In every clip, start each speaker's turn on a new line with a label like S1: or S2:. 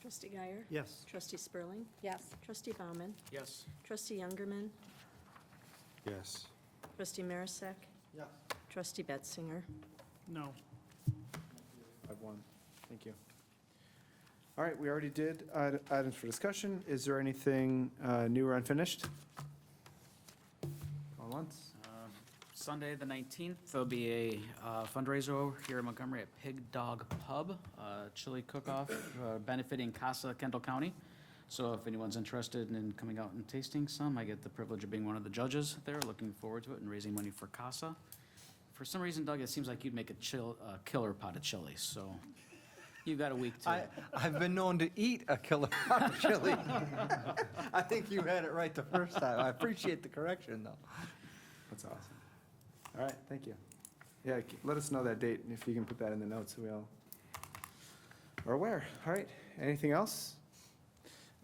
S1: Trustee Guyer?
S2: Yes.
S1: Trustee Spurling?
S3: Yes.
S1: Trustee Bauman,
S4: Yes.
S1: Trustee Youngerman?
S5: Yes.
S1: Trustee Marisak?
S2: Yes.
S1: Trustee Betzinger?
S2: No.
S5: Five one. Thank you. All right, we already did ite- items for discussion. Is there anything uh, new or unfinished? All once?
S4: Um, Sunday, the 19th, there'll be a uh, fundraiser over here in Montgomery at Pig Dog Pub, uh, chili cook-off uh, benefiting Casa Kendall County. So if anyone's interested in coming out and tasting some, I get the privilege of being one of the judges there, looking forward to it and raising money for Casa. For some reason, Doug, it seems like you'd make a chill, a killer pot of chili, so you've got a week
S6: I,
S4: to.
S6: I've been known to eat a killer pot of chili. I think you had it right the first time. I appreciate the correction, though.
S5: That's awesome. All right, thank you. Yeah, c- let us know that date, and if you can put that in the notes, so we all are aware. All right, anything else?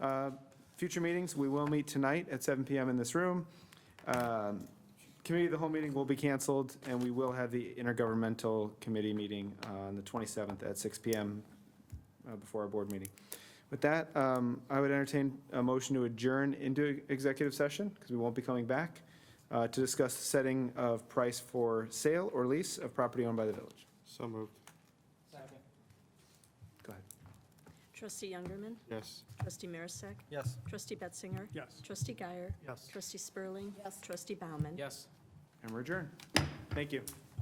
S5: Uh, Future meetings, we will meet tonight at 7 PM in this room. Um, Committee of the whole meeting will be canceled, and we will have the intergovernmental committee meeting on the 27th at 6 PM uh, before our board meeting. With that, um, I would entertain a motion to adjourn into executive session, because we won't be coming back uh, to discuss the setting of price for sale or lease of property owned by the village.
S7: So moved,
S5: Go ahead.
S1: Trustee Youngerman?
S7: yes.
S1: Trustee Marisak?
S6: Yes.
S1: Trustee Betzinger?
S2: Yes.
S1: Trustee Guyer?
S2: Yes.
S1: Trustee Spurling?
S3: Yes.
S1: Trustee Bauman.
S4: Yes.
S5: And we're adjourned. Thank you.